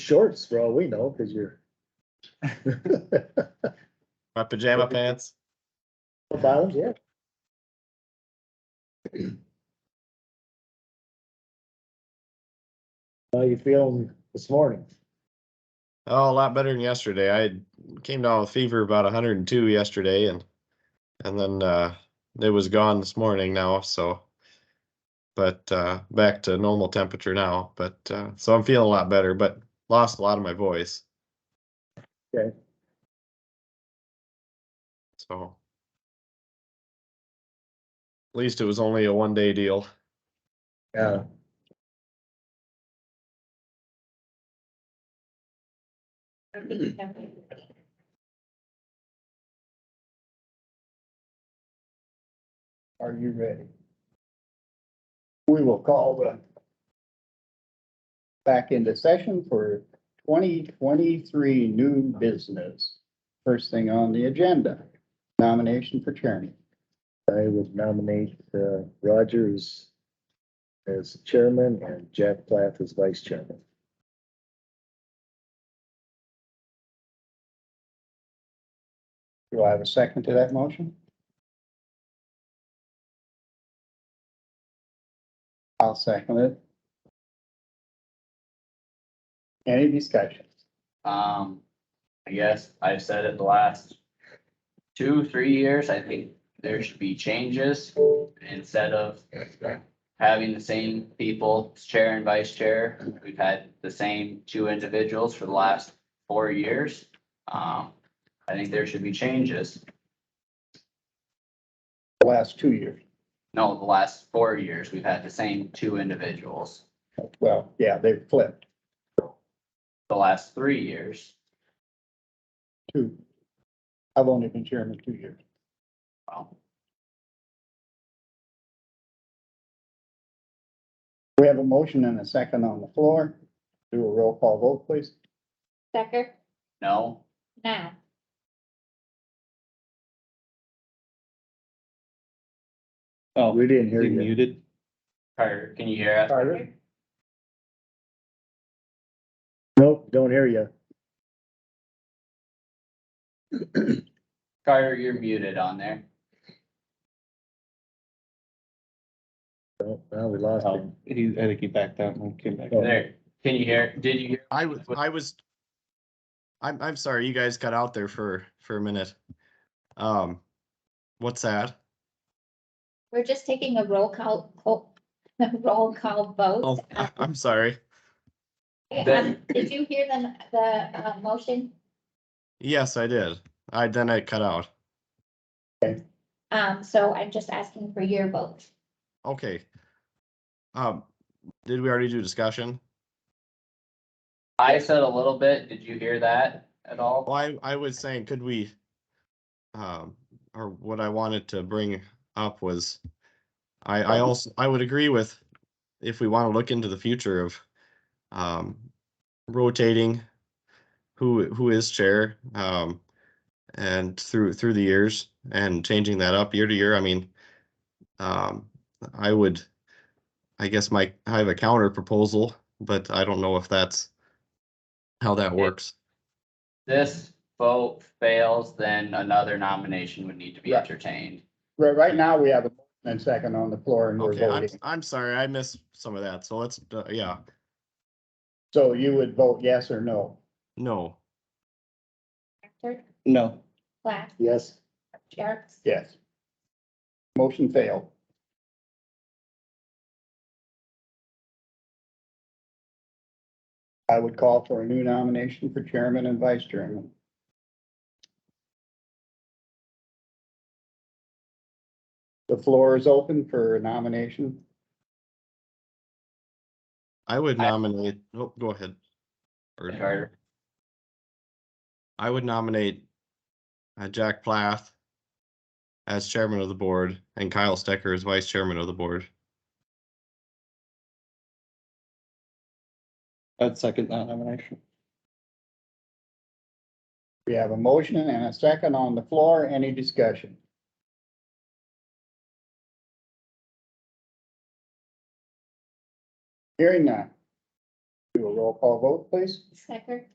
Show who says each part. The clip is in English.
Speaker 1: shorts for all we know, because you're.
Speaker 2: My pajama pants.
Speaker 1: Bottoms, yeah. How you feeling this morning?
Speaker 2: Oh, a lot better than yesterday. I had- came down with fever about 102 yesterday, and and then uh, it was gone this morning now. So, but uh, back to normal temperature now. But uh, so I'm feeling a lot better, but lost a lot of my voice.
Speaker 1: Okay.
Speaker 2: So, at least it was only a one day deal.
Speaker 1: Yeah. Are you ready?
Speaker 3: We will call the back into session for twenty twenty-three new business. First thing on the agenda, nomination for chairman.
Speaker 1: I would nominate uh, Roger as as chairman and Jack Plath as vice chairman.
Speaker 3: Do I have a second to that motion? I'll second it. Any discussion?
Speaker 4: Um, I guess I've said it the last two, three years, I think there should be changes instead of having the same people, chair and vice chair. We've had the same two individuals for the last four years. Um, I think there should be changes.
Speaker 3: Last two years,
Speaker 4: No, the last four years, we've had the same two individuals.
Speaker 3: well, yeah, they flipped
Speaker 4: The last three years,
Speaker 3: two. I've only been chairman two years.
Speaker 4: well,
Speaker 3: We have a motion and a second on the floor. Do a roll call vote, please.
Speaker 5: Stecker,
Speaker 4: no,
Speaker 5: now,
Speaker 1: We Oh, didn't hear you.
Speaker 3: muted.
Speaker 4: Carter, can you hear us?
Speaker 1: Carter? Nope, don't hear you.
Speaker 4: Carter, you're muted on there.
Speaker 1: Nope, Now we lost him.
Speaker 3: He, I think he backed out and came back.
Speaker 4: There, can you hear, did you hear?
Speaker 2: I was, I was, I'm, I'm sorry, you guys got out there for, for a minute. Um, what's that?
Speaker 5: we're just taking a roll call, call- roll call vote.
Speaker 2: Oh, I- I'm sorry.
Speaker 5: Um, Did you hear the, the uh, motion?
Speaker 2: Yes, I did. I, then I cut out.
Speaker 5: Um, so I'm just asking for your vote.
Speaker 2: Okay. Um, did we already do discussion?
Speaker 4: I said a little bit, did you hear that at all?
Speaker 2: Well, I, I was saying, could we, um, or what I wanted to bring up was, I, I also, I would agree with, if we want to look into the future of, um, rotating who, who is chair, um, and through, through the years and changing that up year to year, I mean, um, I would, I guess my, I have a counter proposal, but I don't know if that's how that works.
Speaker 4: This vote fails, then another nomination would need to be
Speaker 3: Right.
Speaker 4: entertained.
Speaker 3: Right, right now, we have a motion and second on the floor and we're
Speaker 2: Okay, I'm,
Speaker 3: voting.
Speaker 2: I'm sorry, I missed some of that, so let's, uh, yeah,
Speaker 3: So you would vote yes or no?
Speaker 2: no,
Speaker 5: Hector,
Speaker 3: No.
Speaker 5: Plath,
Speaker 1: Yes,
Speaker 5: Jerks,
Speaker 3: Yes. Motion failed. I would call for a new nomination for chairman and vice chairman. The floor is open for nomination.
Speaker 2: I would
Speaker 4: I-
Speaker 2: nominate, oh, go ahead. Or-
Speaker 4: Carter,
Speaker 2: I would nominate uh, Jack Plath as chairman of the board and Kyle Stecker as vice chairman of the board.
Speaker 6: I'd second that nomination.
Speaker 3: We have a motion and a second on the floor. Any discussion? Hearing none.
Speaker 7: Do a roll call vote, please.
Speaker 3: Stecker?